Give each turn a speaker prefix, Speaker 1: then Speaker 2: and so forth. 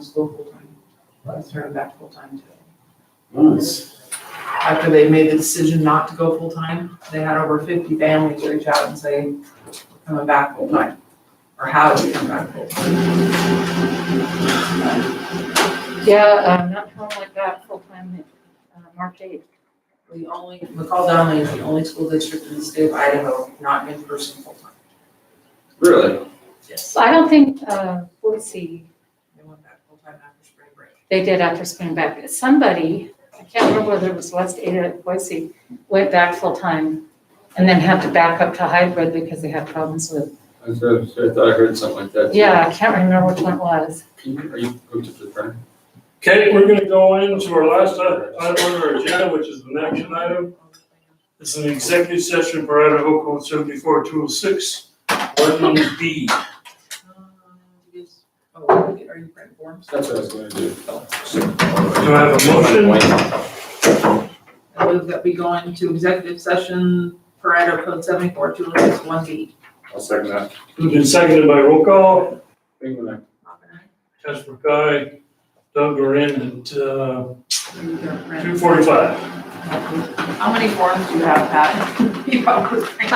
Speaker 1: school full-time. Let's turn it back full-time too.
Speaker 2: Nice.
Speaker 1: After they made the decision not to go full-time, they had over fifty families reach out and say, coming back full-time, or how do we come back full-time?
Speaker 3: Yeah, um, not home like that full-time, uh, March eighth.
Speaker 1: The only, McCall Donnelly is the only school district in the state of Idaho not in person full-time.
Speaker 2: Really?
Speaker 1: Yes.
Speaker 3: So I don't think, uh, Boise,
Speaker 1: They went back full-time after spring break.
Speaker 3: they did after spring back. Somebody, I can't remember whether it was West Ada or Boise, went back full-time and then had to back up to hybrid because they had problems with,
Speaker 2: I was gonna say, I thought I heard something like that. too.
Speaker 3: yeah, I can't remember which one it was.
Speaker 2: Can you, are you hooked up to the printer?
Speaker 4: Okay, we're gonna go into our last i- item on our agenda, which is an action item. It's an executive session for Idaho Code seventy-four two oh six, one B.
Speaker 1: Oh, are uh, you printing forms?
Speaker 2: That's what I was gonna do.
Speaker 4: Do I have a motion?
Speaker 1: I move that we go into executive session per Idaho Code seventy-four, two oh six, one B.
Speaker 2: I'll second that.
Speaker 4: Moved and seconded by roll call,
Speaker 2: England,
Speaker 4: Casper Guy, Doug Gorin, at uh, two
Speaker 1: How
Speaker 4: forty-five.
Speaker 1: many forms do you have, Pat? You probably-